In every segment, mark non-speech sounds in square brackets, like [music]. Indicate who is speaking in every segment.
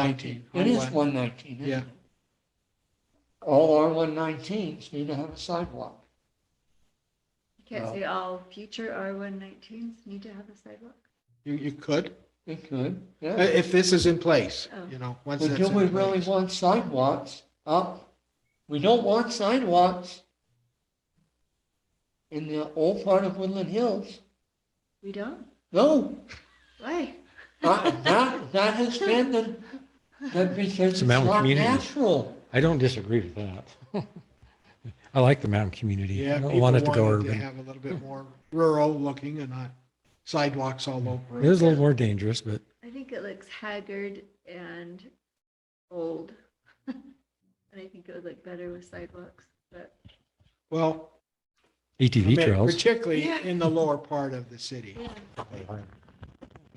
Speaker 1: nineteen. It is one nineteen, isn't
Speaker 2: Yeah.
Speaker 1: it? All R one nineteens need to have a sidewalk.
Speaker 3: You
Speaker 1: Well-
Speaker 3: can't say all future R119s need to have a sidewalk?
Speaker 2: You, you could,
Speaker 1: They could,
Speaker 2: uh,
Speaker 1: yeah.
Speaker 2: if this is in place,
Speaker 3: Oh.
Speaker 2: you know, once that's
Speaker 1: Until we
Speaker 2: in
Speaker 1: really
Speaker 2: place.
Speaker 1: want sidewalks up, we don't want sidewalks in the old part of Woodland Hills.
Speaker 3: We don't?
Speaker 1: No,
Speaker 3: Why?
Speaker 1: that, that- that has been the, that because
Speaker 4: It's
Speaker 1: it's
Speaker 4: a mountain
Speaker 1: not
Speaker 4: community.
Speaker 1: natural.
Speaker 4: I don't disagree with that. [laughs] I like the mountain community.
Speaker 2: Yeah,
Speaker 4: I don't
Speaker 2: people
Speaker 4: want it to go
Speaker 2: wanted to
Speaker 4: urban.
Speaker 2: have a little bit more rural looking and not sidewalks all over.
Speaker 4: It is a little more dangerous, but
Speaker 3: I think it looks haggard and old. [laughs] And I think it would look better with sidewalks, but
Speaker 2: Well,
Speaker 4: ATV E trails.
Speaker 2: particularly
Speaker 3: Yeah.
Speaker 2: in the lower part of the city.
Speaker 3: yeah.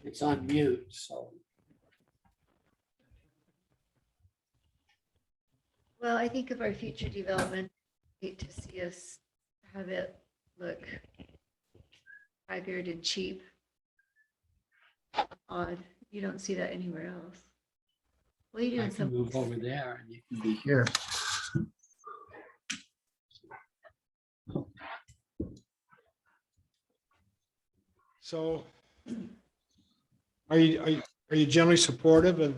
Speaker 5: It's on mute, so.
Speaker 3: Well, I think of our future development, I hate to see us have it look haggard and cheap. Odd, you don't see that anywhere else. Well, you do
Speaker 5: I
Speaker 3: in
Speaker 5: can
Speaker 3: some.
Speaker 5: move over there and you can be here.
Speaker 2: So are you, are you, are you generally supportive of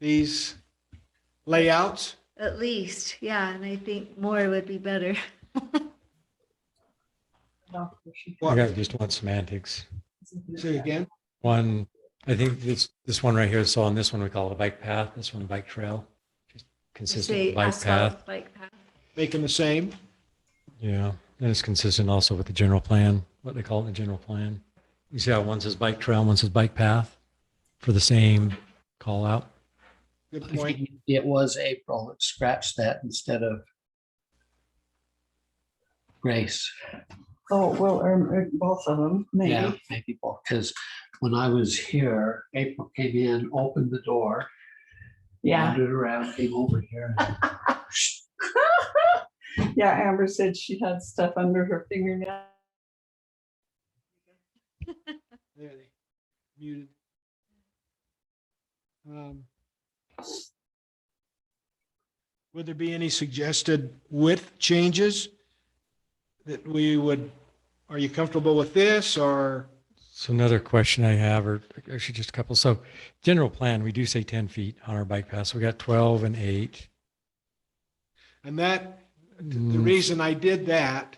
Speaker 2: these layouts?
Speaker 3: At least, yeah, and I think more would be better. [laughs]
Speaker 4: I
Speaker 2: What,
Speaker 4: got just one semantics.
Speaker 2: say again?
Speaker 4: One, I think this, this one right here, so on this one, we call it a bike path, this one, bike trail. Just Consistent
Speaker 3: Say
Speaker 4: with bike
Speaker 3: asphalt
Speaker 4: path,
Speaker 3: Bike path,
Speaker 2: Make them the same?
Speaker 4: yeah. And it's consistent also with the general plan, what they call it in the general plan. You see how one says bike trail, one says bike path for the same call out?
Speaker 2: Good
Speaker 5: I
Speaker 2: point.
Speaker 5: think It was April. Let's Scratch that instead of Grace.
Speaker 6: Oh, well, um, uh, both of them,
Speaker 5: Yeah,
Speaker 6: maybe.
Speaker 5: maybe because when I was here, April came in, opened the door,
Speaker 6: Yeah,
Speaker 5: wandered around, came over here.
Speaker 6: yeah, Amber said she had stuff under her fingernail.
Speaker 2: There they muted. Um, Would there be any suggested width changes? That we would, are you comfortable with this or
Speaker 4: So another question I have, or actually just a couple. So general plan, we do say 10 feet on our bike path. So we got 12 and eight.
Speaker 2: and that, the
Speaker 4: Mm.
Speaker 2: reason I did that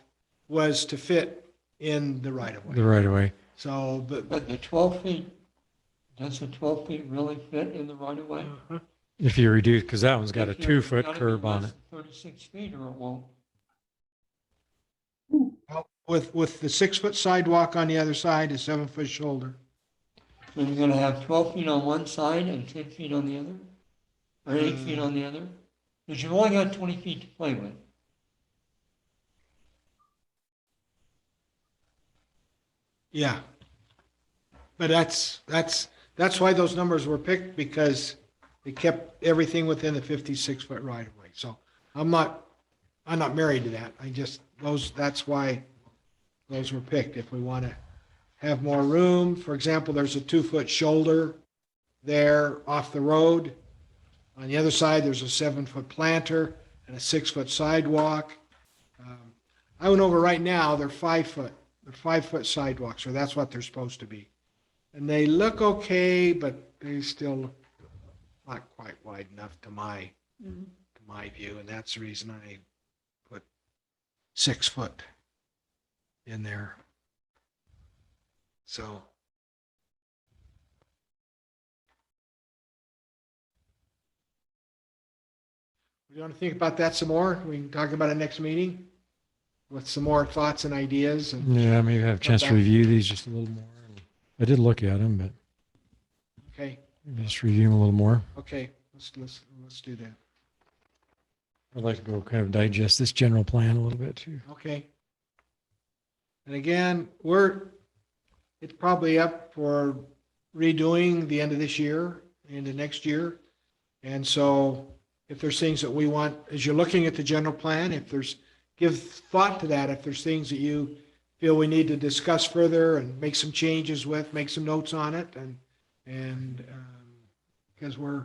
Speaker 2: was to fit in the right of
Speaker 4: Mm, The
Speaker 2: way.
Speaker 4: right of way.
Speaker 2: So, but
Speaker 1: But the twelve feet, does the twelve feet really fit in the right of way?
Speaker 4: If you reduce, because that one's got a
Speaker 1: If you-
Speaker 4: two foot
Speaker 1: gotta be
Speaker 4: curb on
Speaker 1: less
Speaker 4: it.
Speaker 1: than Thirty-six feet or it won't.
Speaker 2: with, with the six foot sidewalk on the other side, a seven foot shoulder.
Speaker 1: So you're gonna have twelve feet on one side and ten feet on the other? Or eight feet
Speaker 2: Hmm.
Speaker 1: on the other? Because you've only got twenty feet to play with.
Speaker 2: Yeah. But that's, that's, that's why those numbers were picked because they kept everything within the fifty-six foot right of way. So I'm not, I'm not married to that. I just, those, that's why those were picked. If we want to have more room, for example, there's a two-foot shoulder there off the road. On the other side, there's a seven-foot planter and a six-foot sidewalk. Um, I went over right now, they're five-foot they're five foot sidewalks, or that's what they're supposed to be. And they look okay, but they still not quite wide enough to my,
Speaker 3: Mm.
Speaker 2: to my view, and that's the reason I put six foot in there. So. We want to think about that some more? We can talk about it next meeting with some more thoughts and ideas and.
Speaker 4: Yeah, maybe have a chance to
Speaker 2: Okay.
Speaker 4: review these just a little more. I did look at them, but
Speaker 2: Okay,
Speaker 4: maybe just review them a little more.
Speaker 2: okay, let's, let's, let's do that.
Speaker 4: I'd like to go kind of digest this general plan a little bit too.
Speaker 2: Okay. And again, we're, it's probably up for redoing the end of this year, into next year. And so if there's things that we want, as you're looking at the general plan, if there's, give thought to that, if there's things that you feel we need to discuss further and make some changes with, make some notes on it and, and um, because we're